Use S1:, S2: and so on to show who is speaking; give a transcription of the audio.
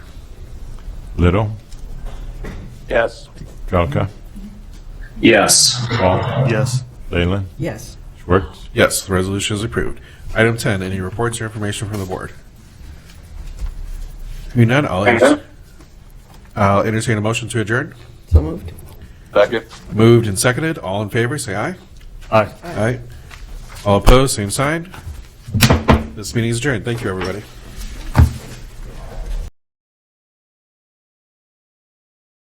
S1: Little,
S2: Yes.
S1: Jelka,
S2: Yes.
S1: Paul,
S3: Yes.
S1: Leyland,
S4: Yes.
S1: Schwartz.
S5: Yes, the resolution is approved. Item 10, any reports or information from the board? Hearing none, I'll enter- I'll entertain a motion to adjourn.
S4: So moved.
S2: Second.
S5: Moved and seconded, all in favor, say aye.
S3: Aye.
S5: Aye. All opposed, same sign. This meeting is adjourned. Thank you, everybody.